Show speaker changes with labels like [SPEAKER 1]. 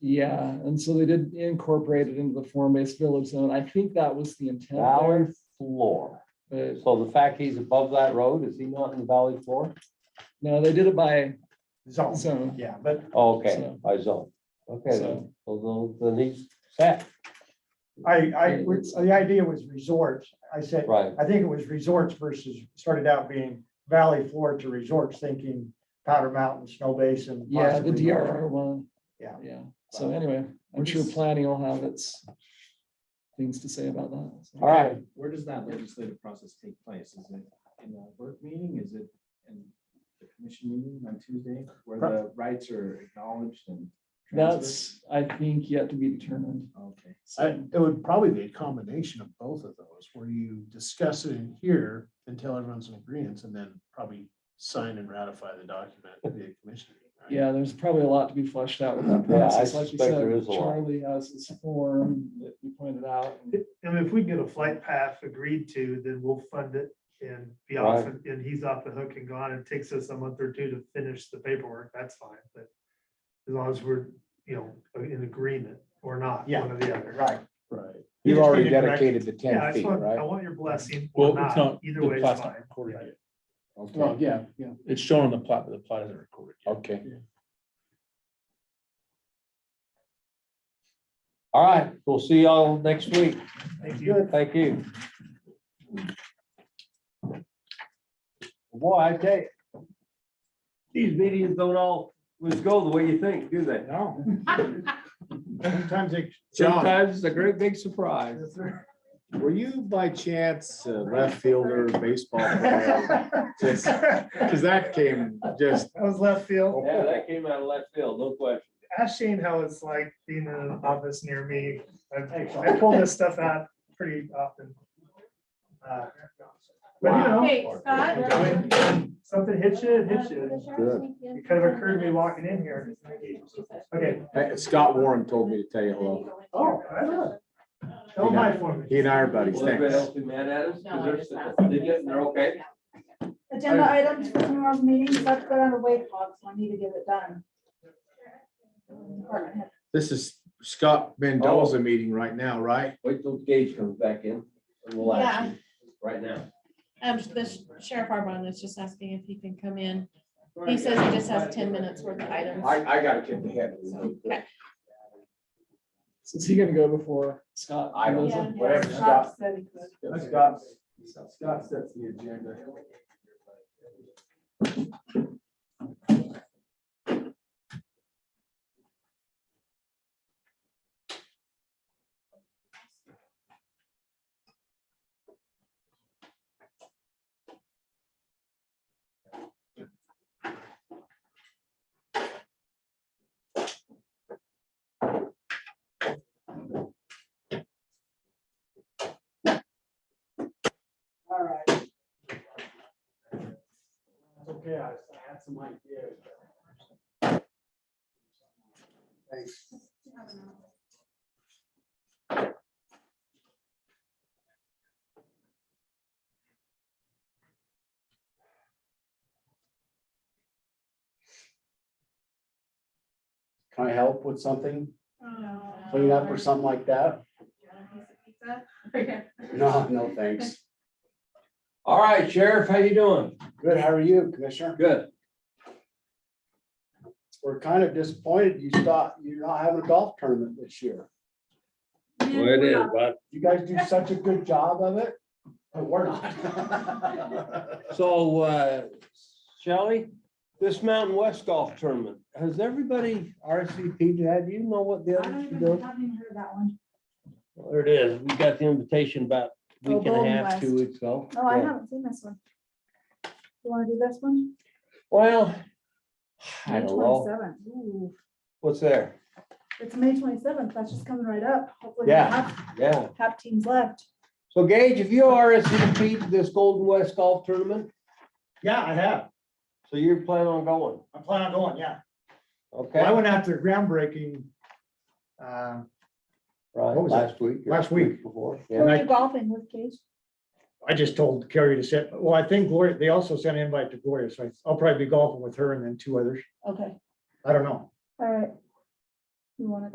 [SPEAKER 1] Yeah, and so they did incorporate it into the form-based village zone. I think that was the intent there,
[SPEAKER 2] Valley floor.
[SPEAKER 1] but
[SPEAKER 2] So the fact he's above that road, is he not in the valley floor?
[SPEAKER 1] no, they did it by
[SPEAKER 3] zone.
[SPEAKER 1] zone.
[SPEAKER 3] Yeah, but
[SPEAKER 2] Oh, Okay,
[SPEAKER 1] So-
[SPEAKER 2] by zone. Okay, then,
[SPEAKER 1] So-
[SPEAKER 2] so the, the he's set,
[SPEAKER 3] I, I, the idea was resorts. I said,
[SPEAKER 2] right,
[SPEAKER 3] I think it was resorts versus, started out being valley floor to resorts, thinking Powder Mountain, Snow Basin.
[SPEAKER 1] Yeah, the
[SPEAKER 3] possibly North.
[SPEAKER 1] DRR one.
[SPEAKER 3] Yeah.
[SPEAKER 1] Yeah, so anyway, I'm sure planning will have its things to say about that. so.
[SPEAKER 2] all right.
[SPEAKER 4] Where does that legislative process take place? Is it in a work meeting? Is it in the commission meeting on Tuesday where the rights are acknowledged and? transferred?
[SPEAKER 1] That's, I think, yet to be determined.
[SPEAKER 4] Okay.
[SPEAKER 5] I,
[SPEAKER 1] So,
[SPEAKER 5] it would probably be a combination of both of those, where you discuss it in here until everyone's in agreement, and then probably sign and ratify the document at the commission. meeting, right?
[SPEAKER 1] yeah, there's probably a lot to be fleshed out with that
[SPEAKER 2] Yeah, I
[SPEAKER 1] process. Like you
[SPEAKER 2] suspect there
[SPEAKER 1] said,
[SPEAKER 2] is a lot.
[SPEAKER 1] Charlie has his form that you pointed out. and-
[SPEAKER 6] And if we get a flight path agreed to, then we'll fund it and be off, and and he's off the hook and gone. It takes us a month or two to finish the paperwork, that's fine, but as long as we're, you know, in agreement or not,
[SPEAKER 3] Yeah.
[SPEAKER 6] one or the other.
[SPEAKER 3] Right.
[SPEAKER 5] Right.
[SPEAKER 2] You've
[SPEAKER 3] You just
[SPEAKER 2] already
[SPEAKER 3] need to direct-
[SPEAKER 2] dedicated the
[SPEAKER 6] Yeah, I
[SPEAKER 2] ten
[SPEAKER 6] just
[SPEAKER 2] feet,
[SPEAKER 6] want, I
[SPEAKER 2] right?
[SPEAKER 6] want your blessing or
[SPEAKER 7] Well, it's
[SPEAKER 6] not,
[SPEAKER 7] not,
[SPEAKER 6] either
[SPEAKER 7] the
[SPEAKER 6] way is
[SPEAKER 7] plot's not
[SPEAKER 6] fine.
[SPEAKER 7] recorded yet.
[SPEAKER 5] Well,
[SPEAKER 2] Okay,
[SPEAKER 5] yeah, yeah.
[SPEAKER 7] It's shown on the plot, but the plot isn't recorded yet.
[SPEAKER 2] okay. All right, we'll see y'all next week.
[SPEAKER 6] Thank you.
[SPEAKER 2] Good, thank you. Boy, I tell you, these meetings don't all, let's go the way you think, do they?
[SPEAKER 3] No. Sometimes it.
[SPEAKER 2] Sometimes it's a great big surprise.
[SPEAKER 5] Were you by chance a left fielder baseball? player? Just-
[SPEAKER 3] That
[SPEAKER 5] that came just.
[SPEAKER 6] was left field.
[SPEAKER 2] Yeah, that came out of left field, no question.
[SPEAKER 6] Ask Shane how it's like being in an office near me. I pull this stuff out pretty often. But you know,
[SPEAKER 8] Hey, Scott.
[SPEAKER 6] when something hits you, it hits you.
[SPEAKER 8] It
[SPEAKER 6] It kind of occurred to me walking in here. Okay.
[SPEAKER 5] Scott Warren told me to tell you hello.
[SPEAKER 6] Oh, I know. Oh, Don't mind for me.
[SPEAKER 5] He and I are buddies,
[SPEAKER 2] Well, everybody
[SPEAKER 5] thanks.
[SPEAKER 2] else be mad at us? 'Cause they're sitting- They get, they're okay.
[SPEAKER 8] Agenda items for tomorrow's meeting, so I've got on a wait clock, so I need to get it done. Department head.
[SPEAKER 5] This is Scott Mendoza meeting right now, right?
[SPEAKER 2] Wait till Gage comes back in and we'll ask him right now.
[SPEAKER 9] Um, the sheriff Arbon is just asking if he can come in. He says he just has ten minutes worth of items.
[SPEAKER 5] I gotta get the head.
[SPEAKER 9] Okay.
[SPEAKER 1] So Is he gonna go before Scott?
[SPEAKER 5] I don't-
[SPEAKER 1] goes
[SPEAKER 8] Yeah,
[SPEAKER 1] in?
[SPEAKER 5] whatever,
[SPEAKER 8] Rob
[SPEAKER 5] Scott.
[SPEAKER 8] said he could.
[SPEAKER 5] Scott, Scott sets the agenda.
[SPEAKER 8] All right.
[SPEAKER 3] Okay, I had some ideas.
[SPEAKER 5] Can I help with something,
[SPEAKER 9] Oh.
[SPEAKER 8] Clean
[SPEAKER 5] clean up or something like that? No, no, thanks.
[SPEAKER 2] All right, Sheriff, how you doing?
[SPEAKER 5] Good, how are you, Commissioner?
[SPEAKER 2] Good.
[SPEAKER 5] We're kind of disappointed you stopped, you're not having a golf tournament this year.
[SPEAKER 2] it is, but.
[SPEAKER 5] You guys do such a good job of it, but we're not.
[SPEAKER 2] So, uh, Shelley, this Mountain West Golf Tournament, has everybody RSVP'd? to that? Do you know what the
[SPEAKER 8] I don't
[SPEAKER 2] others are
[SPEAKER 8] even,
[SPEAKER 2] doing?
[SPEAKER 8] haven't even heard that one.
[SPEAKER 2] Well, There it is. We got the invitation about a week and a
[SPEAKER 8] Oh, Golden
[SPEAKER 2] half, two
[SPEAKER 8] West.
[SPEAKER 2] weeks ago.
[SPEAKER 8] Oh, I
[SPEAKER 2] Yeah.
[SPEAKER 8] haven't seen this one. You wanna do this one?
[SPEAKER 2] Well, I
[SPEAKER 8] May
[SPEAKER 2] don't know.
[SPEAKER 8] 27th. Ooh,
[SPEAKER 2] What's there?
[SPEAKER 8] It's May twenty-seventh, that's just coming right up. Hopefully, we
[SPEAKER 2] Yeah.
[SPEAKER 8] have-
[SPEAKER 2] Yeah.
[SPEAKER 8] Have teams left.
[SPEAKER 2] So Gage, if you RSVP'd to this Golden West Golf Tournament,
[SPEAKER 3] Yeah, I have.
[SPEAKER 2] so you're planning on going,
[SPEAKER 3] I plan on going, yeah. Well, I
[SPEAKER 2] okay?
[SPEAKER 3] went out to groundbreaking uh,
[SPEAKER 2] Right,
[SPEAKER 3] What was
[SPEAKER 2] last week. or
[SPEAKER 3] last week.
[SPEAKER 2] Before.
[SPEAKER 8] Who
[SPEAKER 2] Yeah.
[SPEAKER 8] are
[SPEAKER 3] I-
[SPEAKER 8] you golfing with, Gage?
[SPEAKER 3] I just told Carrie to sit. Well, I think Gloria, they also sent an invite to Gloria, so I- I'll probably be golfing with her and then two others.
[SPEAKER 8] Okay,
[SPEAKER 3] I don't know.
[SPEAKER 8] all right. You wanna